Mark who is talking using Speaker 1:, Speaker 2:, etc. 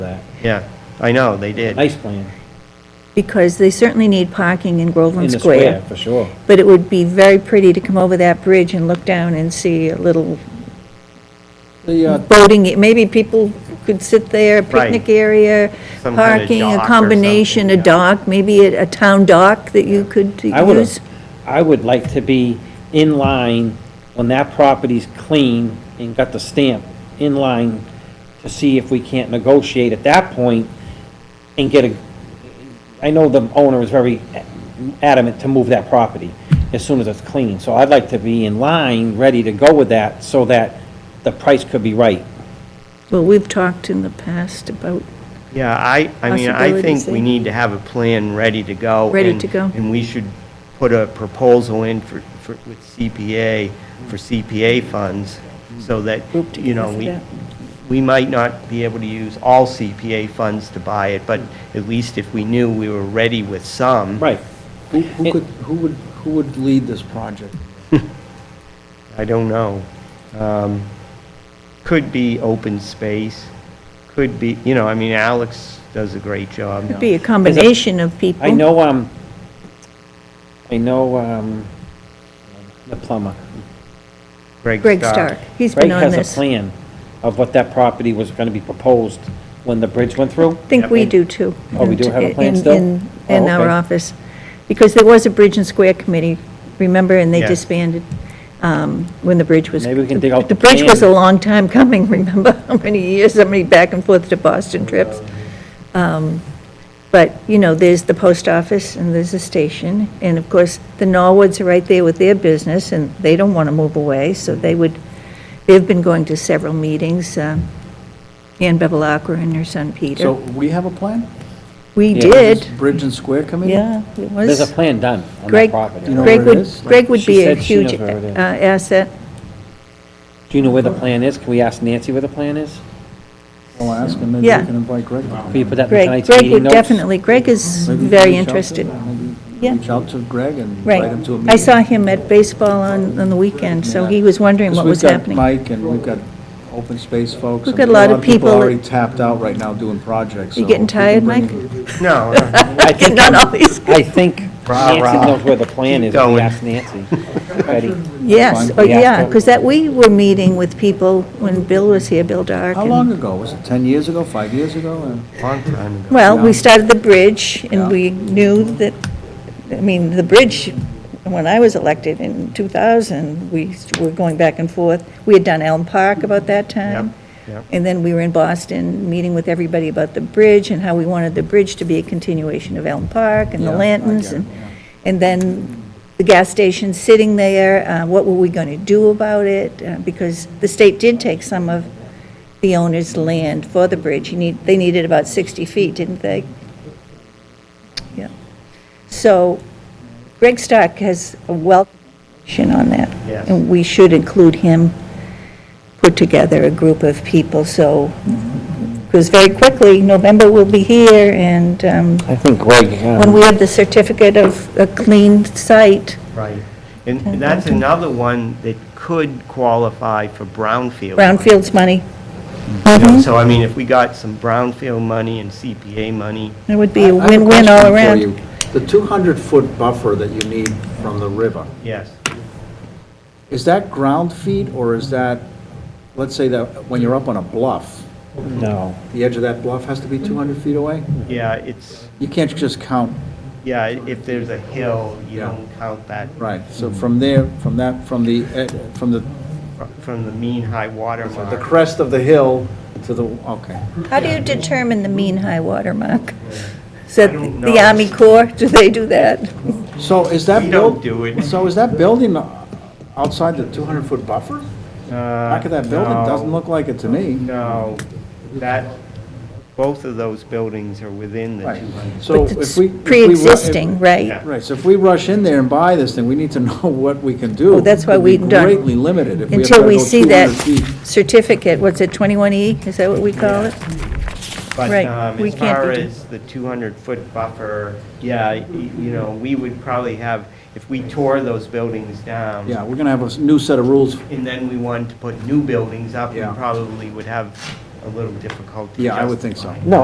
Speaker 1: that,
Speaker 2: Yeah, I know, they did.
Speaker 1: nice plan,
Speaker 3: because they certainly need parking in
Speaker 1: in
Speaker 3: Groveland
Speaker 1: the
Speaker 3: Square.
Speaker 1: square, for sure.
Speaker 3: But it would be very pretty to come over that bridge and look down and see a little
Speaker 1: The, uh,
Speaker 3: boating, maybe people could sit there,
Speaker 2: Right.
Speaker 3: picnic area,
Speaker 2: Some kind of
Speaker 3: parking,
Speaker 2: dock or
Speaker 3: a
Speaker 2: something,
Speaker 3: combination, a
Speaker 2: yeah.
Speaker 3: dock, maybe a a town dock that you could
Speaker 1: I would,
Speaker 3: use.
Speaker 1: I would like to be in line when that property's clean and got the stamp, in line to see if we can't negotiate at that point and get a, I know the owner is very adamant to move that property as soon as it's clean. So I'd like to be in line, ready to go with that, so that the price could be right.
Speaker 3: Well, we've talked in the past about,
Speaker 2: Yeah, I, I mean, I think
Speaker 3: Possibilities, eh?
Speaker 2: we need to have a plan ready to go.
Speaker 3: Ready
Speaker 2: and-
Speaker 3: to go.
Speaker 2: And we should put a proposal in for, for, with CPA, for CPA funds, so that,
Speaker 3: Group
Speaker 2: you know,
Speaker 3: together for
Speaker 2: we,
Speaker 3: that.
Speaker 2: we might not be able to use all CPA funds to buy it, but at least if we knew we were ready with some.
Speaker 1: Right.
Speaker 4: Who who
Speaker 1: It-
Speaker 4: could, who would, who would lead this project?
Speaker 2: I don't know. Um, Could be open space, could be, you know, I mean, Alex does a great job.
Speaker 3: could be a combination of people.
Speaker 1: I know, um, I know, um, the plumber.
Speaker 3: Greg Stark, he's
Speaker 1: Greg
Speaker 3: been on
Speaker 1: has a
Speaker 3: this. I
Speaker 1: plan of what that property was gonna be proposed when the bridge went through.
Speaker 3: think we
Speaker 1: And-
Speaker 3: do too.
Speaker 1: Oh, we do have a plan
Speaker 3: In-
Speaker 1: still?
Speaker 3: In,
Speaker 1: Oh,
Speaker 3: in our
Speaker 1: okay.
Speaker 3: office, because there was a Bridge and Square Committee, remember, and they
Speaker 2: Yeah.
Speaker 3: disbanded um, when the bridge was.
Speaker 1: Maybe we can dig out the
Speaker 3: bridge was a
Speaker 1: plan.
Speaker 3: long time coming, remember, how many years, how many back and forth to Boston trips. Um, But, you know, there's the post office, and there's the station, and of course, the Norwoods are right there with their business, and they don't want to move away, so they would, they've been going to several meetings, um, Ann Bevelacqua and her son
Speaker 4: So
Speaker 3: Peter.
Speaker 4: we have a plan?
Speaker 3: We
Speaker 1: Yeah.
Speaker 3: did,
Speaker 4: Bridge and Square Committee?
Speaker 3: yeah, it was.
Speaker 1: There's a plan done on that
Speaker 3: Greg,
Speaker 1: property.
Speaker 4: You know
Speaker 3: Greg
Speaker 4: where it
Speaker 3: would,
Speaker 4: is?
Speaker 3: Greg would
Speaker 1: She
Speaker 3: be a
Speaker 1: said she knows
Speaker 3: huge uh,
Speaker 1: where it is.
Speaker 3: asset.
Speaker 1: Do you know where the plan is? Can we ask Nancy where the plan is?
Speaker 4: I'll ask and maybe we
Speaker 3: Yeah.
Speaker 4: can invite Greg.
Speaker 1: Can you put that in
Speaker 3: Greg,
Speaker 1: tonight's
Speaker 3: Greg
Speaker 1: meeting
Speaker 3: would
Speaker 1: notes?
Speaker 3: definitely, Greg is
Speaker 4: Maybe we can
Speaker 3: very
Speaker 4: reach out to-
Speaker 3: interested.
Speaker 4: maybe
Speaker 3: Yeah.
Speaker 4: Reach out to Greg and invite him
Speaker 3: Right.
Speaker 4: to a meeting.
Speaker 3: I saw him at baseball on, on the weekend, so he was wondering what was happening.
Speaker 4: Because we've got Mike and we've got open space folks.
Speaker 3: We've
Speaker 4: and
Speaker 3: got a lot of people that-
Speaker 4: already tapped out right now doing projects.
Speaker 3: You
Speaker 4: so
Speaker 3: getting
Speaker 4: if we can
Speaker 3: tired,
Speaker 4: bring
Speaker 3: Mike?
Speaker 4: in-
Speaker 2: No, no.
Speaker 1: I think,
Speaker 3: Not always.
Speaker 1: I think
Speaker 2: Rah,
Speaker 1: Nancy
Speaker 2: rah.
Speaker 1: knows where the plan
Speaker 2: Keep
Speaker 1: is. We
Speaker 2: going.
Speaker 1: asked Nancy. Ready?
Speaker 3: Yes,
Speaker 4: Fine.
Speaker 3: oh,
Speaker 1: Yeah.
Speaker 3: yeah, because that, we were meeting with people when Bill was here, Bill Dark.
Speaker 4: How
Speaker 3: and-
Speaker 4: long ago? Was it 10 years ago, five years ago? And-
Speaker 2: Long time ago.
Speaker 3: Well,
Speaker 4: Yeah.
Speaker 3: we started the bridge,
Speaker 4: Yeah.
Speaker 3: and we knew that, I mean, the bridge, when I was elected in 2000, we were going back and forth. We had done Elm Park about that time.
Speaker 2: Yep, yep.
Speaker 3: And then we were in Boston, meeting with everybody about the bridge and how we wanted the bridge to be a continuation of Elm Park and the
Speaker 4: Yeah, I
Speaker 3: lanterns.
Speaker 4: get
Speaker 3: And
Speaker 4: it,
Speaker 3: and then the gas station sitting there, uh, what were we going to do about it? Uh, Because the state did take some of the owner's land for the bridge. You need, they needed about 60 feet, didn't they? Yeah. So Greg Stark has a wealth of information on that.
Speaker 2: Yes.
Speaker 3: And we should include him, put together a group of people, so, because very quickly, November will be here, and um,
Speaker 1: I think Greg,
Speaker 3: when we
Speaker 1: um,
Speaker 3: have the certificate of a clean site,
Speaker 2: Right. And and that's another one that could qualify for brownfield.
Speaker 3: brownfields money,
Speaker 2: You
Speaker 3: Mm-hmm.
Speaker 2: know, So I mean, if we got some brownfield money and CPA money,
Speaker 3: it would be a
Speaker 4: I have a
Speaker 3: win-win all
Speaker 4: question
Speaker 3: around.
Speaker 4: for you. The 200-foot buffer that you need from the river,
Speaker 2: yes.
Speaker 4: is that ground feet, or is that, let's say that when you're up on a bluff,
Speaker 1: no.
Speaker 4: the edge of that bluff has to be 200 feet away?
Speaker 2: Yeah, it's,
Speaker 4: You can't just count,
Speaker 2: yeah, if there's a hill, you
Speaker 4: Yeah.
Speaker 2: don't count that
Speaker 4: right, so from there, from that, from the, ed- from the
Speaker 2: fr- from the mean high water
Speaker 4: the
Speaker 2: mark.
Speaker 4: crest of the hill to the, okay.
Speaker 3: How do you determine the mean high water mark? Is that
Speaker 2: I don't
Speaker 3: the
Speaker 2: know.
Speaker 3: Army Corps, do they do that?
Speaker 4: So is that?
Speaker 2: We
Speaker 4: buil-
Speaker 2: don't do it.
Speaker 4: So is that building outside the 200-foot buffer? Back of that
Speaker 3: Uh,
Speaker 4: building, doesn't look like it to me.
Speaker 2: Uh, No, that, both of those buildings are within the
Speaker 4: Right,
Speaker 2: 200.
Speaker 4: so
Speaker 3: But
Speaker 4: if
Speaker 3: it's
Speaker 4: we. if we ru- if-
Speaker 3: Pre-existing,
Speaker 2: Yeah.
Speaker 3: right?
Speaker 4: Right, so if we rush in there and buy this thing, we need to know what we can do.
Speaker 3: Well, that's why
Speaker 4: We'd be
Speaker 3: we don't-
Speaker 4: Greatly limited if we have to
Speaker 3: Until we
Speaker 4: go
Speaker 3: see that
Speaker 4: 200 feet.
Speaker 3: certificate, what's it, 21E, is that what we call it?
Speaker 2: But
Speaker 3: Right,
Speaker 2: um,
Speaker 3: we
Speaker 2: as
Speaker 3: can't
Speaker 2: far
Speaker 3: be do-
Speaker 2: as the 200-foot buffer, yeah, y- you know, we would probably have, if we tore those buildings down.
Speaker 4: Yeah, we're gonna have a s- new set of rules.
Speaker 2: And then we wanted to put new buildings up, we
Speaker 4: Yeah.
Speaker 2: probably would have a little difficult to
Speaker 4: Yeah, I would think
Speaker 2: justify.
Speaker 4: so.